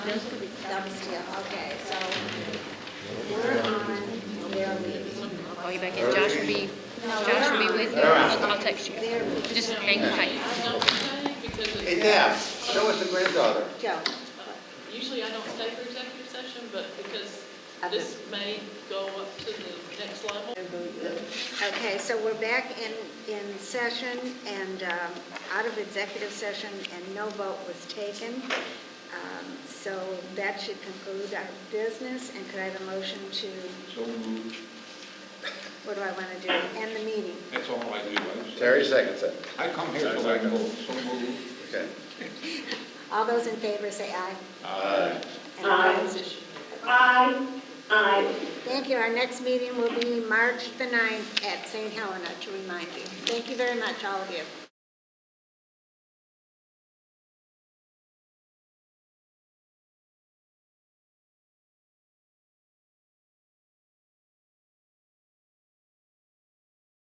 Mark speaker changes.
Speaker 1: Dumpster, okay, so we're on their meeting.
Speaker 2: call you back in. Josh will be, Josh will be with you. I'll I'll text you. Just hang tight.
Speaker 3: Hey, Dad, show us the granddaughter.
Speaker 1: Joe,
Speaker 4: Usually I don't stay for executive session, but because this may go up to the next level.
Speaker 1: okay, so we're back in, in session and um, out of executive session and no vote was taken. Um, So that should conclude our business and could I have a motion to,
Speaker 5: So moved.
Speaker 1: what do I want to do? End the meeting.
Speaker 5: That's all I do. I-
Speaker 3: Terry seconds it.
Speaker 5: I come here so I can vote. So moved.
Speaker 3: Okay.
Speaker 1: All those in favor say aye.
Speaker 3: Aye.
Speaker 1: And opposed?
Speaker 6: Aye, aye.
Speaker 1: Thank you. Our next meeting will be March the 9th at St. Helena, to remind you. Thank you very much, all of you.